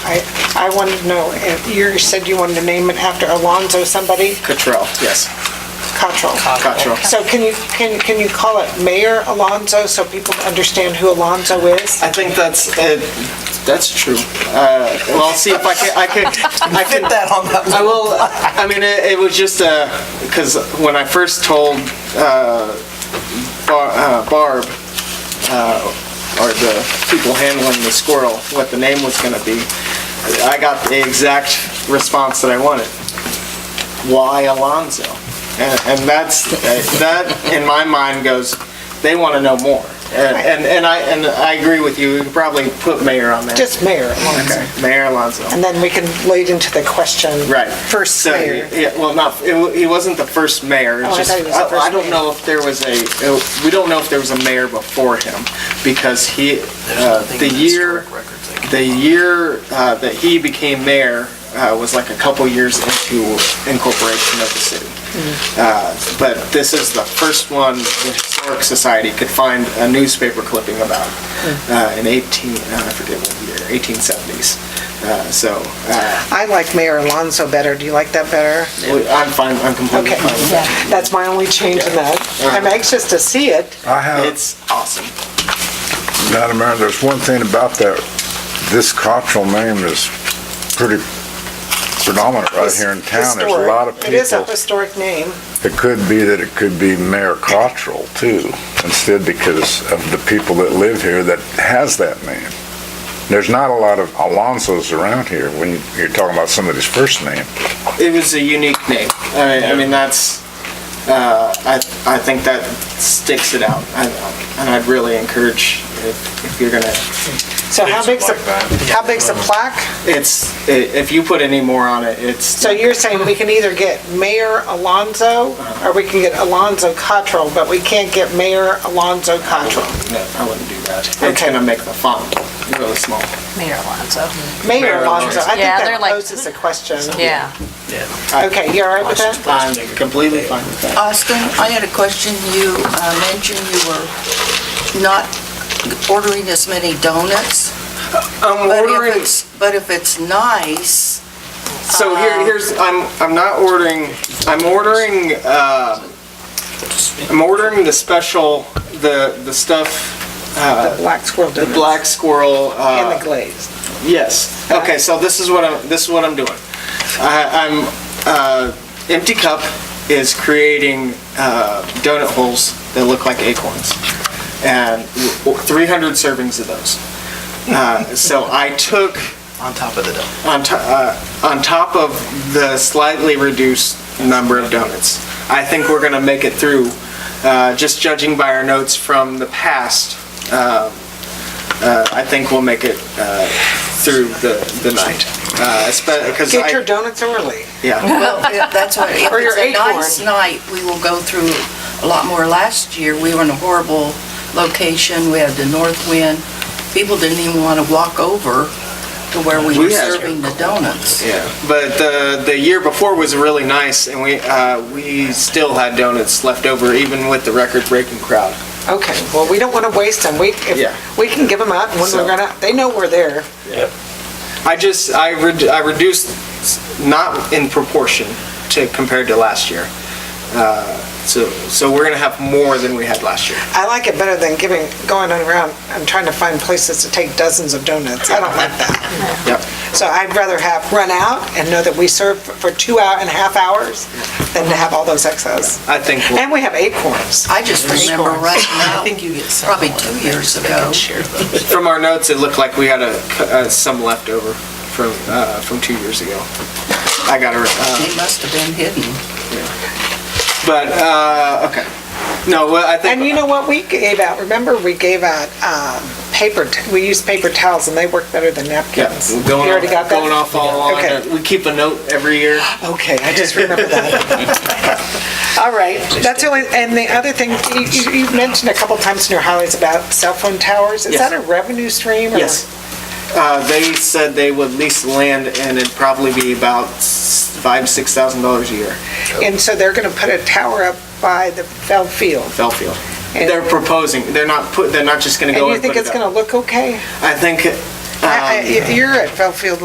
I, I wanted to know, if you said you wanted to name it after Alonzo somebody, Cottrell, yes, Cottrell. Cottrell. So can you, can, can you call it Mayor Alonzo so people understand who Alonzo is? I think that's, uh, that's true. Uh, Well, I'll see if I can, I can, I can, that on that. I will, I mean, it it was just, because when I first told uh, Bar- uh, Barb, uh, or the people handling the squirrel, what the name was going to be, I got the exact response that I wanted. Why Alonzo? And and that's, that, in my mind, goes, they want to know more. And- And and I, and I agree with you, we could probably put mayor on there. Just Mayor Alonzo. Okay, Mayor Alonzo. And then we can lead into the question. Right. First So, mayor. Yeah, well, not, it wa- he wasn't the first mayor. it Oh, was I just- thought he was the first I don't mayor. know if there was a, it- we don't know if there was a mayor before him, because he, uh, the year, the year uh, that he became mayor uh, was like a couple years into incorporation of the city. Mm-hmm. Uh, But this is the first one the Historic Society could find a newspaper clipping about Mm. uh, in 18, uh, I forget what year, 1870s. Uh, So, uh, I like Mayor Alonzo better. Do you like that better? I'm fine, I'm completely Okay. fine with that. That's my only change in that. I'm anxious to see it. I have, It's awesome. Madam Mayor, there's one thing about that, this cultural name is pretty predominant right here in town. There's a lot of Historic. It is a people. historic name. It could be that it could be Mayor Cottrell too, instead because of the people that live here that has that name. There's not a lot of Alonsos around here when you're talking about somebody's first name. It was a unique name. I mean, I mean that's, uh, I, I think that sticks it out. I- And I'd really encourage, if if you're gonna, So how big's a, how big's a plaque? it's, i- if you put any more on it, it's, So you're saying we can either get Mayor Alonzo, or we can get Alonzo Cottrell, but we can't get Mayor Alonzo Cottrell. no, I wouldn't do that. It's Okay. gonna make the font really small. Mayor Alonso. Mayor Mayor Alonzo, I think Yeah, they're that like- poses a question. Yeah. Okay, you all right with that? I'm completely fine with that. Austin, I had a question. You uh, mentioned you were not ordering as many donuts. I'm but if ordering- it's- But if it's nice, So Uh, here, here's, I'm, I'm not ordering, I'm ordering, uh, I'm ordering the special, the, the stuff, uh, The black squirrel the donuts. black squirrel, And the uh, glazed. yes. Okay, so this is what I'm, this is what I'm doing. I, I'm, uh, Empty Cup is creating, uh, donut holes that look like acorns. And w- w- 300 servings of those. Uh, so I took, On top of the dome. on, to, uh, on top of the slightly reduced number of donuts. I think we're going to make it through, uh, just judging by our notes from the past. Uh, uh, I think we'll make it uh, through the, the night. Because Get your I, donuts early. yeah, well, if- that's what, if Or your it's a nice acorn. night, we will go through a lot more. Last year, we were in a horrible location. We had the north wind. People didn't even want to walk over to where we were We had- serving the donuts. yeah. But uh, the, the year before was really nice, and we, uh, we still had donuts left over, even with the record-breaking crowd. Okay, well, we don't want to waste them. We, Yeah. if, we can give them out when So- we're gonna, they know we're there. I just, I re- I reduced, not in proportion to, compared to last year. Uh, So, so we're gonna have more than we had last year. I like it better than giving, going around and trying to find places to take dozens of donuts. I don't like that. Yep. So I'd rather have run out and know that we serve for two hour and a half hours than to have all those excess. I think, we'll- And we have acorns. I just remember right now, you get some. probably two years ago, from our notes, it looked like we had a, uh, some left over from, uh, from two years ago. I gotta, uh, they must have been hidden. but, uh, okay. No, well, I And you think, know what we gave out? Remember, we gave out um, paper, t- we used paper towels and they work better than yeah, napkins. You we're going already got off, that? going off all along. Okay. We keep a note every year. Okay, I just remembered that. All right, that's the only, and the other thing, you- you- you've mentioned a couple times in your highlights about cell phone towers. Is Yes. that a revenue stream? or- Yes. Uh, they said they would lease land and it'd probably be about s- five, six thousand dollars a year, And so they're going to put a tower up by the Feld Field. Bellfield. And- They're proposing, they're not put, they're not just gonna And go you and put think it it's going up. to look okay? I think, I- I- um, You're at Feld Field